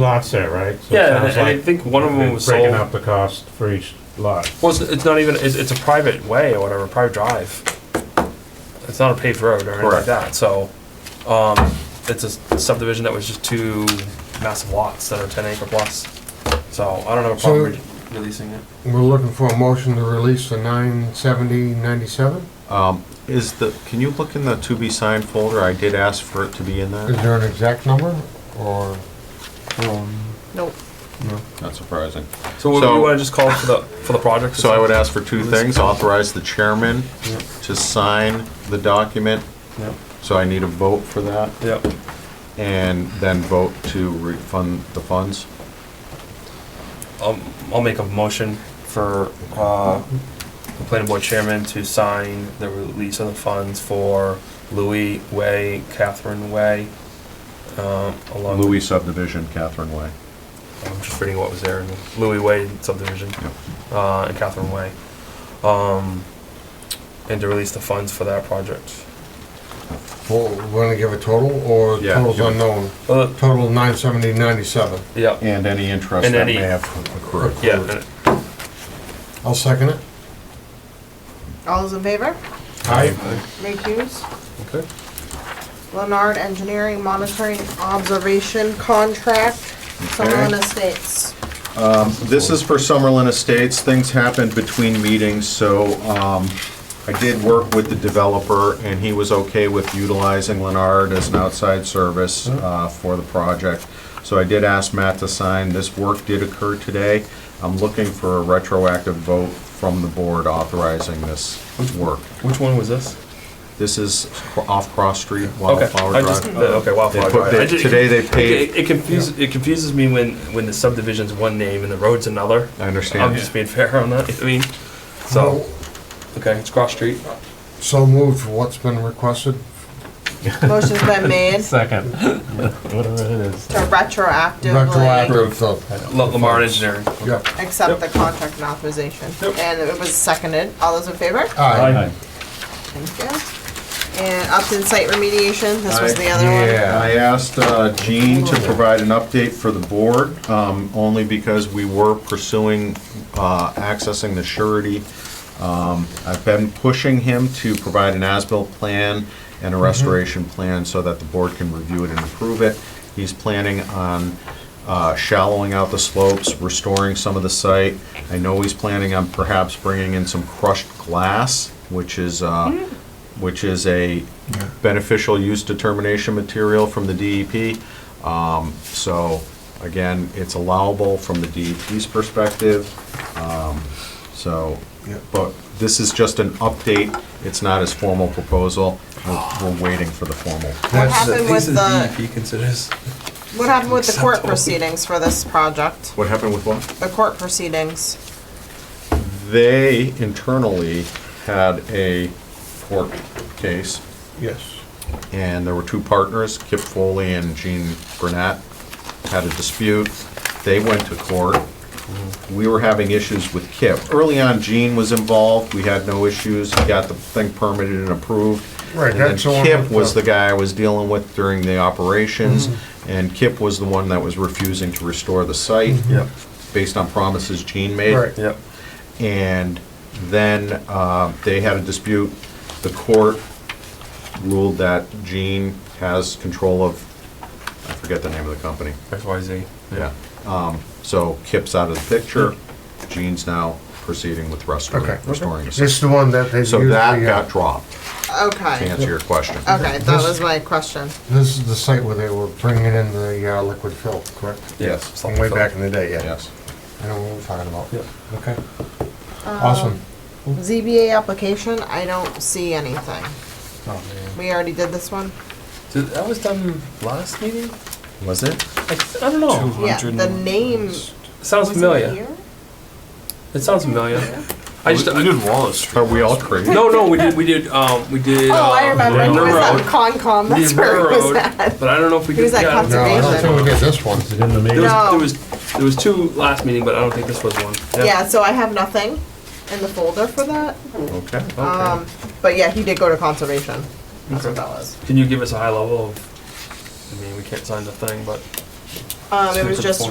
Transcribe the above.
lot set, right? So it Yeah, sounds and I like think one of them was they're Breaking sold. up the cost for each lot. Well, it's, it's not even, it's, it's a private way or whatever, private drive. It's not a paved road or anything like Correct. that, so, um, it's a subdivision that was just two massive lots that are ten acre plus. So I don't have a problem So- re- releasing it. We're looking for a motion to release the nine seventy ninety-seven? Um, Is the, can you look in the to be signed folder? I did ask for it to be in Is there. there an exact number, or? Nope. Not surprising. So would So- you wanna just call for the, for the project? So I would ask for two things, authorize the chairman to sign the document, Yep, so I need a vote for that, yep. and then vote to refund the funds. I'll, I'll make a motion for, uh, the planning board chairman to sign the release of the funds for Louis Way, Catherine Way, um, along. with- Louis subdivision, Catherine Way. I'm just reading what was there, and Louis Way subdivision, Yep. uh, and Catherine Way. Um, and to release the funds for that project. Well, we're gonna give a total, or Yeah, total's give it- unknown? Uh, Total nine seventy ninety-seven. yeah, And any interest And that any- may have accrued. yeah, and- I'll second it. All those in favor? Aye. Ray Hughes. Okay. Leonard Engineering Monitoring Observation Contract, Summerlin Estates. This is for Summerlin Estates. Things happened between meetings, so um, I did work with the developer, and he was okay with utilizing Leonard as an outside service Mm-hmm. uh, for the project. So I did ask Matt to sign. This work did occur today. I'm looking for a retroactive vote from the board authorizing this work. which one was this? This is off Cross Street, Okay, Wildflower I just, uh, Drive. okay, They Wildflower put- Drive. they- I did- Today, they It paid, it confuses, it confuses me when, when the subdivision's one name and the road's another. I I'm understand. just being fair on that, I mean, so, okay, it's cross street. So moved for what's been requested. Motion's been made Second. Whatever it is. to retroactively Retroactive, so, La- Lamar Engineering. yeah. accept the contract and authorization. Yep. And it was seconded. All those in favor? Aye. Thank you. And Upton Site Remediation, this was Aye. the other one. Yeah. I asked uh, Jean to provide an update for the board, um, only because we were pursuing uh, accessing the surety. Um, I've been pushing him to provide an as-built plan and a restoration plan so that the board can review it and approve it. He's planning on uh, shallowing out the slopes, restoring some of the site. I know he's planning on perhaps bringing in some crushed glass, which is, uh, which is a beneficial use determination material from the DEP. Um, So, again, it's allowable from the DEP's perspective. Um, So, Yeah. but this is just an update, it's not his formal proposal. We're we're waiting for the formal. What That's happened the- with the, considers. what happened with the court proceedings for this project? What happened with what? The court proceedings. They internally had a court case, Yes. and there were two partners, Kip Foley and Gene Granat, had a dispute. They went to court. We were having issues with Kip. Early on, Gene was involved. We had no issues. He got the thing permitted and approved. Right, And then that's the one Kip with was the- the guy I was dealing with during the operations, Mm-hmm. and Kip was the one that was refusing to restore the site Yep. based on promises Gene made Mm-hmm. Right. Yep. and then uh, they had a dispute. The court ruled that Gene has control of, I forget the name of the company. XYZ. Yeah. Um, So Kip's out of the picture. Gene's now proceeding with restoring, Okay. restoring. the It's the one that they So usually. that uh, got dropped, to Okay, answer your question. okay, that was my question. This is the site where they were bringing in the uh, liquid fill, correct? Yes. From way back in the day, yeah. Yes. I know what we're talking about. Yep. Okay. Awesome. ZBA application, I don't see anything. We already did this one? Did, that was done last meeting? Was it? I, th- I don't know. Yeah, the name. Sounds was it familiar. here? It sounds familiar. I just, I- Wallace Are we all crazy? no, no, we did, we did, um, we did. Oh, I uh, remember, he River was Road. at Concom, We that's did where River he was Road, at. But I don't know if we He was did. at yeah, I don't No, think- I don't think Conservation. we did this one. Is it in the meeting? There was, No. there was, there was two last meeting, but I don't think this was one. Yeah, so I have nothing in the folder for that. Okay. Um, but yeah, he did go to conservation. That's what Okay. that was. Can you give us a high level of, I mean, we can't sign the thing, but Um, it was Super just